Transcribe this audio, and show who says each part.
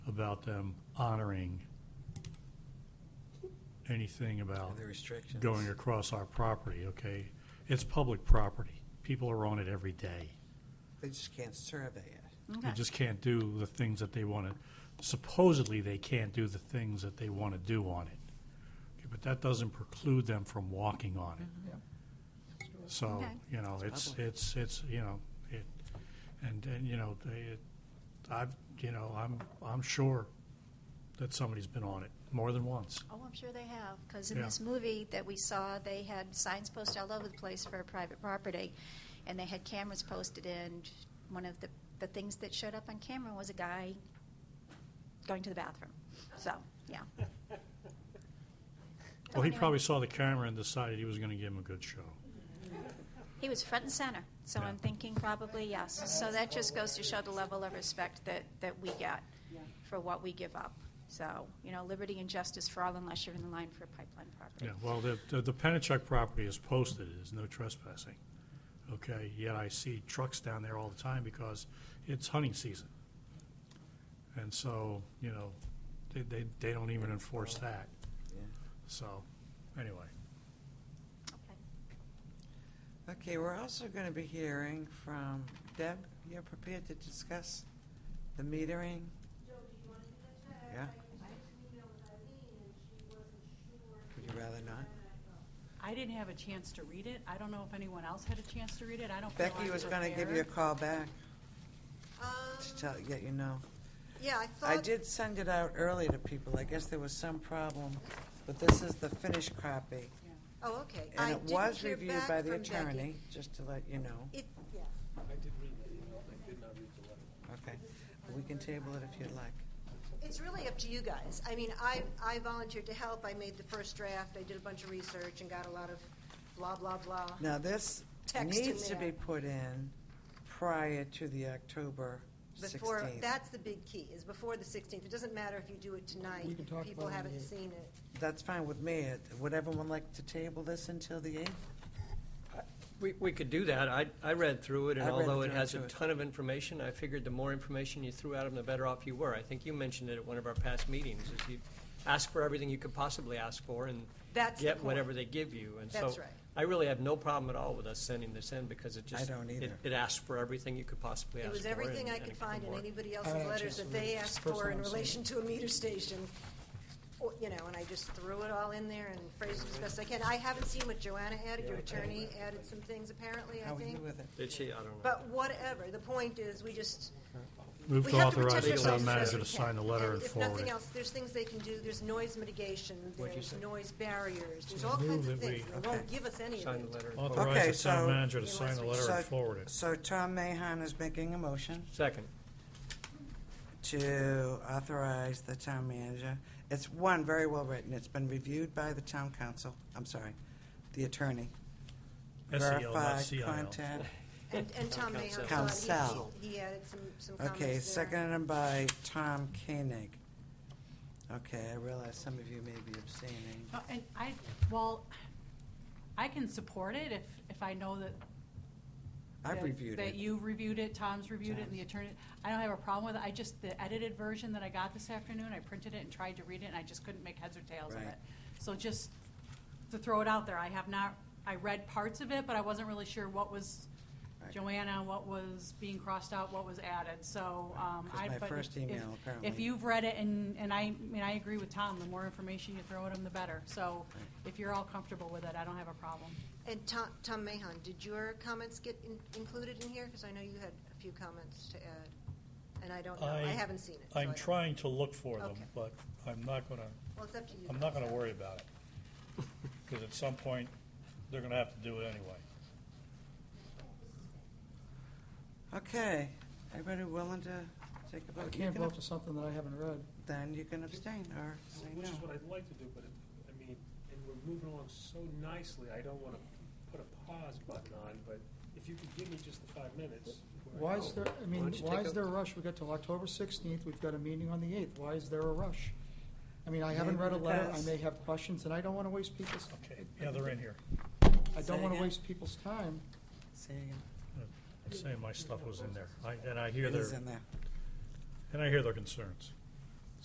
Speaker 1: about them honoring anything about
Speaker 2: The restrictions.
Speaker 1: going across our property, okay? It's public property. People are on it every day.
Speaker 2: They just can't survey it.
Speaker 1: They just can't do the things that they want to, supposedly they can't do the things that they want to do on it. Okay, But that doesn't preclude them from walking on it. So,
Speaker 3: Okay.
Speaker 1: you know, it's,
Speaker 2: public.
Speaker 1: it's, it's, you know, it, and, and, you know, they, it, I've, you know, I'm, I'm sure that somebody's been on it more than once.
Speaker 3: Oh, I'm sure they have, because in
Speaker 1: Yeah.
Speaker 3: this movie that we saw, they had signs posted all over the place for private property, and they had cameras posted, and one of the, the things that showed up on camera was a guy going to the bathroom. So, yeah.
Speaker 1: Well, he
Speaker 3: Anyway,
Speaker 1: probably saw the camera and decided he was going to give him a good show.
Speaker 3: He was front and center, so
Speaker 1: Yeah.
Speaker 3: I'm thinking probably yes. So that just goes to show the level of respect that, that we get for what we give up. So, you know, liberty and justice for all unless you're in the line for a pipeline property.
Speaker 1: Yeah, well, the, the- the Penachuk property is posted, there's no trespassing, okay? Yet I see trucks down there all the time because it's hunting season. And so, you know, they, they, they don't even enforce that, so, anyway.
Speaker 3: Okay.
Speaker 2: Okay, we're also going to be hearing from Deb. You're prepared to discuss the metering? Yeah. Would you rather not?
Speaker 4: I didn't have a chance to read it. I don't know if anyone else had a chance to read it. I don't feel
Speaker 2: Becky
Speaker 4: I'm
Speaker 2: was going to give you a
Speaker 4: prepared.
Speaker 2: call back
Speaker 5: Um,
Speaker 2: to tell, get you know.
Speaker 5: yeah, I
Speaker 2: I
Speaker 5: thought,
Speaker 2: did send it out early to people. I guess there was some problem, but this is the finished copy.
Speaker 5: oh, okay. I
Speaker 2: And it
Speaker 5: didn't
Speaker 2: was
Speaker 5: hear
Speaker 2: reviewed
Speaker 5: back
Speaker 2: by the
Speaker 5: from Becky.
Speaker 2: attorney, just to let you know.
Speaker 5: It, yeah.
Speaker 2: Okay. We can table it if you'd like.
Speaker 5: It's really up to you guys. I mean, I, I volunteered to help. I made the first draft. I did a bunch of research and got a lot of blah, blah, blah.
Speaker 2: Now, this
Speaker 5: Text in
Speaker 2: needs to be
Speaker 5: there.
Speaker 2: put in prior to the October
Speaker 5: Before,
Speaker 2: 16th.
Speaker 5: that's the big key, is before the 16th. It doesn't matter if you do it tonight,
Speaker 6: We can
Speaker 5: if
Speaker 6: talk
Speaker 5: people
Speaker 6: about it on
Speaker 5: haven't
Speaker 6: the eighth.
Speaker 5: seen it.
Speaker 2: That's fine with me. It- Would everyone like to table this until the 8th?
Speaker 7: We, we could do that. I, I read through it, and
Speaker 2: I read
Speaker 7: although it
Speaker 2: through it,
Speaker 7: has a
Speaker 2: too.
Speaker 7: ton of information, I figured the more information you threw at them, the better off you were. I think you mentioned it at one of our past meetings, is you ask for everything you could possibly ask for and
Speaker 5: That's the
Speaker 7: get whatever
Speaker 5: point.
Speaker 7: they give you. And
Speaker 5: That's
Speaker 7: so
Speaker 5: right.
Speaker 7: I really have no problem at all with us sending this in, because it
Speaker 2: I
Speaker 7: just.
Speaker 2: don't
Speaker 7: it-
Speaker 2: either.
Speaker 7: It asked for everything you could possibly
Speaker 5: It
Speaker 7: ask for.
Speaker 5: was everything I
Speaker 7: and- and
Speaker 5: could
Speaker 7: it
Speaker 5: find in
Speaker 7: more.
Speaker 5: anybody
Speaker 6: I
Speaker 5: else's
Speaker 6: had a
Speaker 5: letters
Speaker 6: chance
Speaker 5: that
Speaker 6: to read
Speaker 5: they
Speaker 6: it. It's
Speaker 5: asked
Speaker 6: the first
Speaker 5: for
Speaker 6: time
Speaker 5: in
Speaker 6: I've seen
Speaker 5: relation to a meter station. Or, You know, and I just threw it all in there and phrased it as best I can. I haven't seen what Joanna added, your attorney added some things apparently, I
Speaker 2: How are you
Speaker 5: think.
Speaker 2: with it?
Speaker 7: Did she? I don't know.
Speaker 5: But whatever, the point is, we just,
Speaker 1: Move
Speaker 5: we
Speaker 1: to
Speaker 5: have to
Speaker 1: authorize
Speaker 5: protect
Speaker 1: the
Speaker 5: ourselves.
Speaker 1: town
Speaker 5: as
Speaker 1: manager to
Speaker 5: best we
Speaker 1: sign the
Speaker 5: can.
Speaker 1: letter
Speaker 5: And
Speaker 1: and
Speaker 5: if
Speaker 1: forward
Speaker 5: nothing
Speaker 1: it.
Speaker 5: else, there's things they can do, there's noise mitigation,
Speaker 7: What'd you
Speaker 5: there's
Speaker 7: say?
Speaker 5: noise barriers, there's
Speaker 1: So
Speaker 5: all kinds
Speaker 1: move
Speaker 5: of
Speaker 1: that we-
Speaker 5: things. They won't
Speaker 2: Okay.
Speaker 5: give us any of
Speaker 7: Sign the
Speaker 5: it.
Speaker 7: letter. and forward it.
Speaker 2: Okay,
Speaker 1: Authorize the town
Speaker 2: so-
Speaker 1: manager to
Speaker 5: Unless
Speaker 1: sign the
Speaker 5: we-
Speaker 1: letter and
Speaker 2: So-
Speaker 1: forward it.
Speaker 2: So Tom Mahon is making a motion
Speaker 7: Second.
Speaker 2: to authorize the town manager. It's one, very well written. It's been reviewed by the town council, I'm sorry, the attorney.
Speaker 1: SEL, E not CIL.
Speaker 2: Verified contact.
Speaker 5: And, and Tom Mahon's on,
Speaker 2: Council.
Speaker 5: he, he added some, some comments there.
Speaker 2: Okay, seconded by Tom Koenig. Okay, I realize some of you may be abstaining.
Speaker 4: Oh, And I, well, I can support it if, if I know that.
Speaker 2: I've
Speaker 4: that-
Speaker 2: reviewed
Speaker 4: That
Speaker 2: it.
Speaker 4: you reviewed it, Tom's reviewed it, and the
Speaker 2: Tom's.
Speaker 4: attorney. I don't have a problem with it. I just, the edited version that I got this afternoon, I printed it and tried to read it, and I just couldn't make heads or tails of
Speaker 2: Right.
Speaker 4: it. So just to throw it out there, I have not, I read parts of it, but I wasn't really sure what was
Speaker 2: Right.
Speaker 4: Joanna, what was being crossed out, what was added, so, um,
Speaker 2: Because
Speaker 4: I.
Speaker 2: my
Speaker 4: but
Speaker 2: first
Speaker 4: if-
Speaker 2: email, apparently.
Speaker 4: If you've read it, and, and I, I mean, I agree with Tom, the more information you throw at him, the better, so if you're all comfortable with it, I don't have a problem.
Speaker 5: And Tom, Tom Mahon, did your comments get in- included in here? Because I know you had a few comments to add, and I don't know, I
Speaker 8: I-
Speaker 5: haven't seen it. so I
Speaker 8: I'm
Speaker 5: don't-
Speaker 8: trying to look for them,
Speaker 5: Okay.
Speaker 8: but I'm not gonna,
Speaker 5: Well, it's up to you.
Speaker 8: I'm not gonna worry about it. Because at some point, they're gonna have to do it anyway.
Speaker 2: Okay, everybody willing to take a
Speaker 6: I
Speaker 2: vote? You
Speaker 6: can't
Speaker 2: can
Speaker 6: vote
Speaker 2: ab-
Speaker 6: for something that I haven't read.
Speaker 2: Then you can abstain or say
Speaker 9: Which is
Speaker 2: no.
Speaker 9: what I'd like to do, but, it- I mean, and we're moving along so nicely, I don't want to put a pause button on, but if you could give me just the five minutes. we're
Speaker 6: Why is
Speaker 9: out.
Speaker 6: there, I
Speaker 7: Why
Speaker 6: mean,
Speaker 7: don't you
Speaker 6: why
Speaker 7: take
Speaker 6: is
Speaker 7: a-
Speaker 6: there a rush? We got till October sixteenth, we've got a meeting on the eighth. Why is there a rush? I mean, I haven't
Speaker 2: Maybe
Speaker 6: read a letter, I
Speaker 2: because-
Speaker 6: may have questions, and I don't want to waste people's,
Speaker 8: Okay, yeah, they're in here.
Speaker 6: I
Speaker 2: Say
Speaker 6: don't want to
Speaker 2: again?
Speaker 6: waste people's time.
Speaker 2: Say again.
Speaker 8: I'm saying my stuff was in there.
Speaker 1: I- And I hear
Speaker 2: It is
Speaker 1: their,
Speaker 2: in there.
Speaker 1: and I hear their concerns.